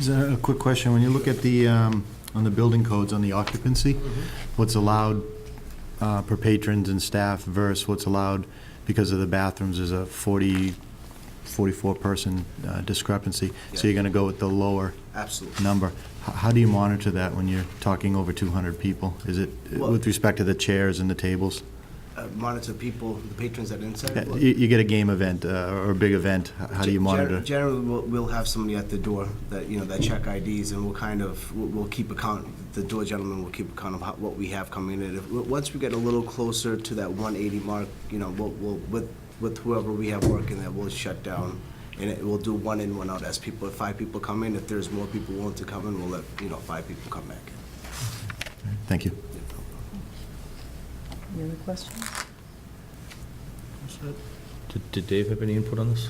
Is there A quick question, when you look at the, um, on the building codes, on the occupancy, Mm-hmm. what's allowed uh, per patrons and staff versus what's allowed because of the bathrooms is a 40, 44-person uh, discrepancy. So you're going to go with the lower Absolutely. number. H- How do you monitor that when you're talking over 200 people? Is it Well- with respect to the chairs and the tables? Uh, Monitor people, the patrons that are Uh, inside. You you get a game event uh, or a big event, h- how do you Gen- monitor? Generally, we'll, we'll have somebody at the door that, you know, that check IDs and we'll kind of, we'll, we'll keep account, the door gentleman will keep account of how- what we have coming in. If, w- once we get a little closer to that one eighty mark, you know, we'll, we'll, with, with whoever we have working there, we'll shut down. And it, we'll do one in, one out as people, if five people come in, if there's more people willing to come in, we'll let, you know, five people come back. Thank you. Any other questions? Did- Did Dave have any input on this?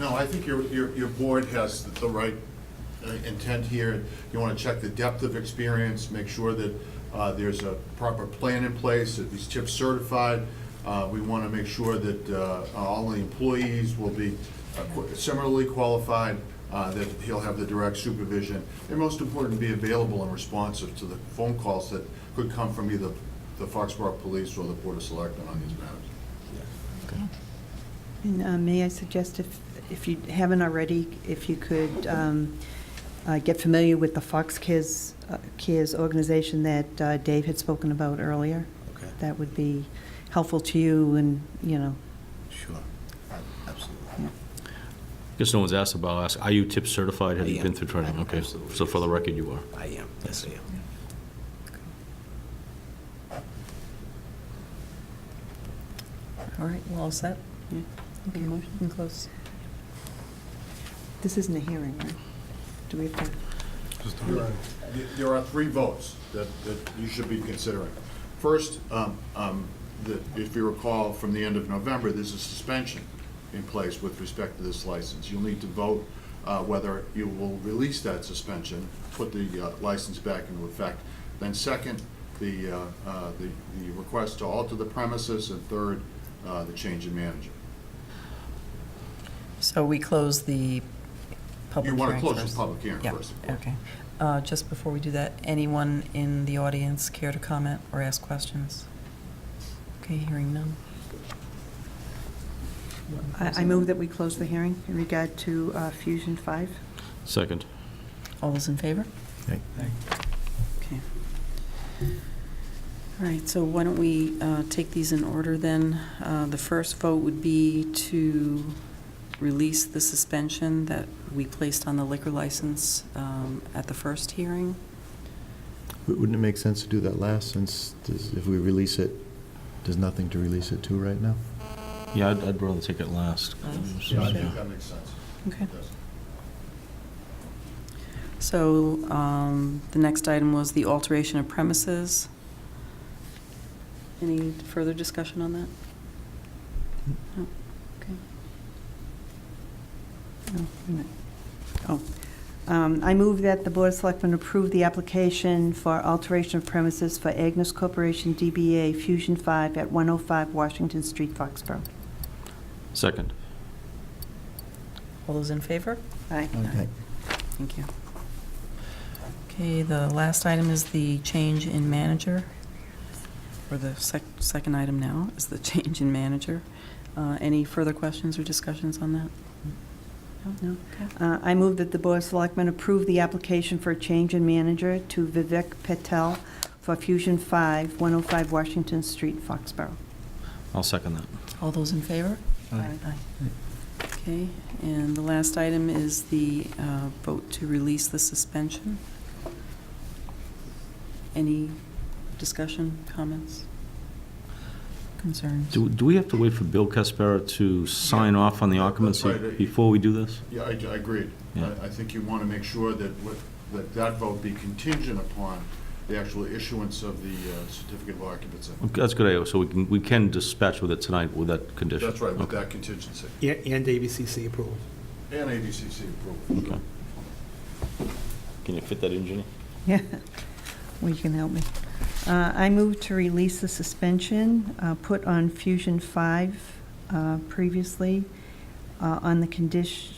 No, I think your, your, your board has the right uh, intent here. You want to check the depth of experience, make sure that uh, there's a proper plan in place, that these TIP's certified. Uh, We want to make sure that uh, all the employees will be uh, qu- similarly qualified, uh, that he'll have the direct supervision, and most important, be available and responsive to the phone calls that could come from either the Foxborough Police or the Board of Selectmen on these matters. And uh, may I suggest, if, if you haven't already, if you could um, uh, get familiar with the Fox Kids, uh, Kids organization that uh, Dave had spoken about earlier? Okay. That would be helpful to you and, you know, Sure. Absolutely. I guess no one's asked about, I'll ask, are you TIP certified? Have I you been am. through training? I- Okay, absolutely, so for the yes. record, you are. I am, yes, I am. All right, we're all set? Yeah. Okay, motion can close. this isn't a hearing, right? Do we have to? There are three votes that, that you should be considering. First, um, um, the- if you recall, from the end of November, there's a suspension in place with respect to this license. You'll need to vote uh, whether you will release that suspension, put the uh, license back into effect. Then second, the, uh, uh, the the request to alter the premises, and third, uh, the change in manager. So we close the public You hearing want to close this first. public hearing Yeah, first, of course. okay. Uh, Just before we do that, anyone in the audience care to comment or ask questions? Okay, hearing none. I I move that we close the hearing in regard to uh, Fusion 5. Second. All those in favor? Aye. Okay. All right, so why don't we uh, take these in order then? Uh, The first vote would be to release the suspension that we placed on the liquor license um, at the first hearing. W- Wouldn't it make sense to do that last, since there's- if we release it, there's nothing to release it to right now? Yeah, I'd I'd rather take it last. Last? Yeah, I Yeah. think that makes sense. Okay. Yes. So um, the next item was the alteration of premises. Any further discussion on that? No? Okay. Oh, wait a minute. Oh. Um, I move that the Board of Selectmen approve the application for alteration of premises for Agnes Corporation DBA Fusion 5 at 105 Washington Street, Foxborough. Second. All those in favor? Aye. Okay. Thank you. Okay, the last item is the change in manager. Or the sec- second item now is the change in manager. Uh, Any further questions or discussions on that? No. Uh, I move that the Board of Selectmen approve the application for a change in manager to Vivek Patel for Fusion 5, 105 Washington Street, Foxborough. I'll second that. All those in favor? Aye. Okay, and the last item is the uh, vote to release the suspension. Any discussion, comments? Concerns? Do do we have to wait for Bill Caspera to sign off on the That's occupancy right. before we do this? Yeah, I, I agreed. Yeah. I, I think you want to make sure that what, that that vote be contingent upon the actual issuance of the uh, certificate of occupancy. Okay, That's a good idea, so we can, we can dispatch with it tonight with that condition. That's right, with Okay. that contingency, Yeah, and ABCC approval. and ABCC approval. Okay. Can you fit that in, Ginny? Yeah, well, you can help me. Uh, I move to release the suspension uh, put on Fusion 5 uh, previously uh, on the condition,